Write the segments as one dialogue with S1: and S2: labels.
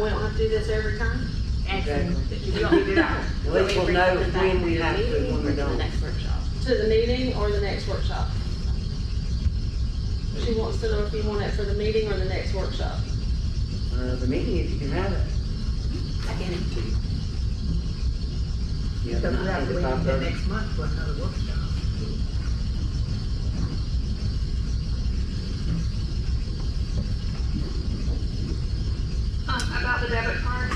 S1: We don't have to do this every time?
S2: Actually,
S3: Exactly.
S2: we don't need it all.
S3: At
S2: So
S3: least we'll
S2: bring
S3: know
S2: something back
S3: when
S2: to
S3: we
S2: the
S3: have to,
S2: meeting
S3: when we
S2: or to
S3: don't.
S2: The next workshop.
S1: To the meeting or the next workshop? She wants to know if you want it for the meeting or the next workshop.
S3: Uh, the meeting, if you can have it.
S2: I can,
S3: Yeah,
S4: So we have to wait until next month for another workshop.
S5: Um, about the debit cards,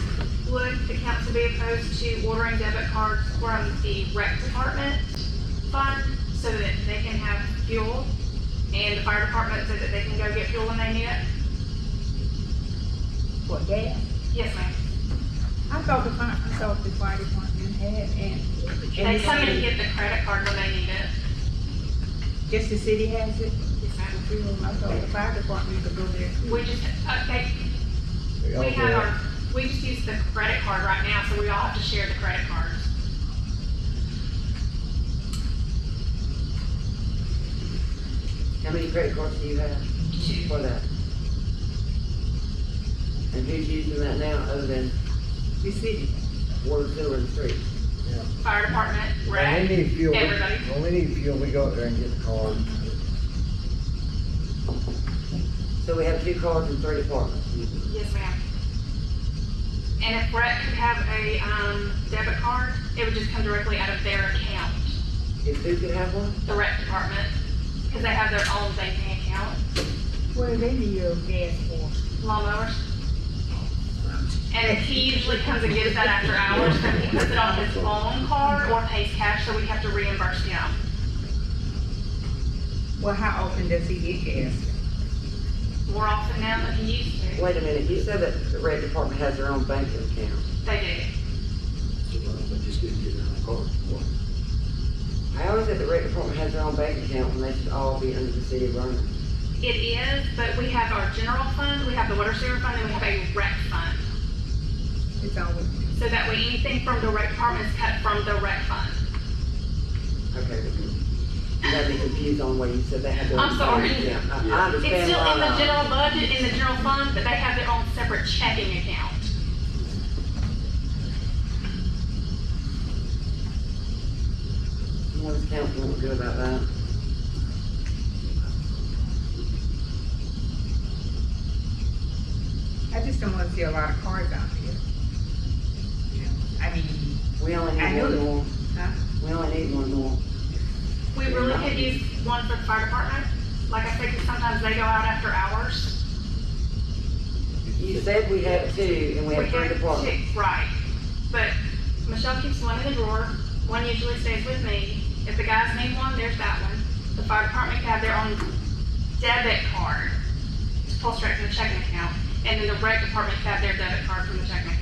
S5: would the council be opposed to ordering debit cards from the rec department fund so that they can have fuel? And the fire department so that they can go get fuel when they need it?
S4: For gas?
S5: Yes, ma'am.
S4: I thought the fire, I thought the fire department had and.
S5: They come and get the credit card when they need it.
S4: Just the city has it?
S5: Yes, ma'am.
S4: I thought the fire department could go there.
S5: We just, okay,
S6: Oh,
S5: we have our, we just use the credit card right now, so we all have to share the credit cards.
S3: How many credit cards do you have
S5: Two.
S3: for that? And who's using that now other than
S4: The city.
S3: one, two, and three?
S5: Fire department,
S6: When
S5: rec,
S6: we need fuel, we-
S5: everybody.
S6: when we need fuel, we go out there and get the car.
S3: So we have two cards and three departments.
S4: Mm-hmm.
S5: Yes, ma'am. And if Brett could have a, um, debit card, it would just come directly out of their account,
S3: If Duke could have one,
S5: the rec department, because they have their own banking account,
S4: What do they need your gas for?
S5: lawnmowers. And he usually comes and gets that after hours, so he puts it on his own card or pays cash, so we have to reimburse him.
S4: Well, how often does he get gas?
S5: More often now than he used to,
S3: wait a minute, you said that the red department has their own banking account.
S5: they
S6: But just didn't get in the car.
S3: How is it the red department has their own bank account when they should all be under the city of Vernon?
S5: do. It is, but we have our general fund, we have the water sewer fund, and we have a rec fund.
S4: It's always.
S5: So that way anything from the rec department is cut from the rec fund.
S3: Okay, you got me confused on what you said they had their own
S5: I'm sorry.
S3: bank account. I- I
S5: It's
S3: understand
S5: still
S3: why
S5: in the
S3: not.
S5: general budget, in the general fund, but they have their own separate checking account.
S3: What does council want to do about that?
S4: I just don't wanna see a lot of cars out here. You know, I mean,
S3: We only
S4: I
S3: need
S4: know
S3: one
S4: that-
S3: more.
S4: Huh?
S3: We only need one more.
S5: We really could use one for the fire department. Like I said, 'cause sometimes they go out after hours.
S3: You said we had two and we had three
S5: have
S3: departments.
S5: two- Right, but Michelle keeps one in the drawer, one usually stays with me. If the guys need one, there's that one. The fire department can have their own debit card to pull straight from the checking account, and then the rec department can have their debit card from the checking account.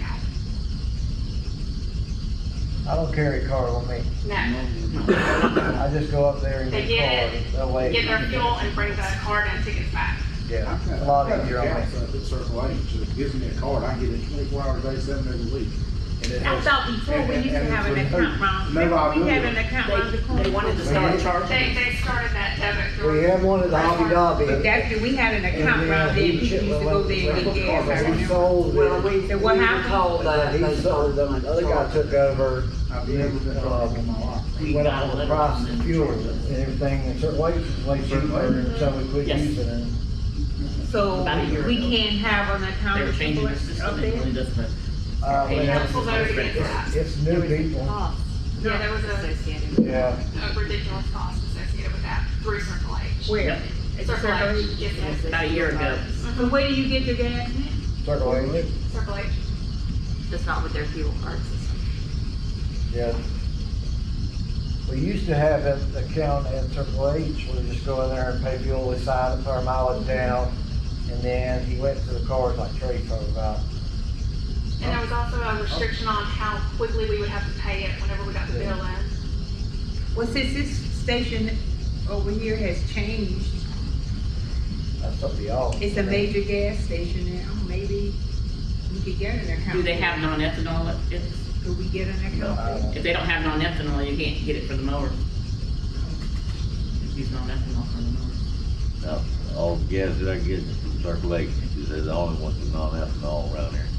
S6: I don't carry a car with me.
S5: No.
S6: I just go up there and
S5: They
S6: get
S5: get
S6: the car. That way.
S5: get their fuel and bring the card and tickets back.
S6: Yeah,
S7: I've got-
S6: it's a lot
S7: I've got
S6: easier on me.
S7: accounts up at Circle H, so it gives me a card, I get it twenty-four hours a day, seven days a week. And it
S4: I
S7: has-
S4: thought before we used to have an account round,
S7: No, I
S4: remember we
S7: agree.
S4: had an account round the corner?
S3: They wanted to
S7: start
S3: start
S5: They,
S3: charging.
S5: they started that debit through.
S6: We have one at the Hobby
S4: But
S6: Lobby.
S4: that's, we had an account
S6: And we
S4: round
S6: had
S4: there,
S6: huge
S4: people used to go there and get gas, I
S6: He
S4: remember.
S6: sold
S3: Well,
S6: it.
S3: we, we
S4: So
S3: were
S4: what happened?
S3: told that they
S6: He sold
S3: started
S6: them.
S3: on
S6: The other guy
S3: charging.
S6: took over.
S7: I've never been charged in my life.
S6: We went up on the price of fuel and everything. And certain ways, way cheaper, and so we quit using it.
S4: So we can't have an
S8: They
S4: account.
S8: were changing the
S4: up
S8: system,
S4: there?
S8: it really doesn't
S6: Uh,
S5: And
S6: yeah,
S5: council voted against
S6: It's
S5: that.
S6: it's new people.
S5: Yeah, there was a,
S6: Yeah.
S5: a ridiculous cost associated with that through Circle H.
S4: Where? At
S5: Circle H,
S4: Circle H?
S5: yes, yes,
S8: about a year ago.
S4: So where do you get your gas now?
S6: Circle H.
S5: Circle H.
S2: That's not with their fuel cards.
S6: Yeah. We used to have an account at Circle H, we just go in there and pay fuel, we sign it, put our mileage down, and then he went to the cars like Trey talked about.
S5: And there was also a restriction on how quickly we would have to pay it whenever we got the bill in.
S4: Well, since this station over here has changed,
S6: That's up to y'all.
S4: it's a major gas station now, maybe we could get an account.
S8: Do they have non-ethanol? at- If,
S4: Could we get an
S6: I
S4: account?
S6: don't
S8: if
S6: know.
S8: they don't have non-ethanol, you can't get it for the mower. Use non-ethanol for the mower.
S9: Now, all the gas that I get from Circle H is the only one that's non-ethanol around here.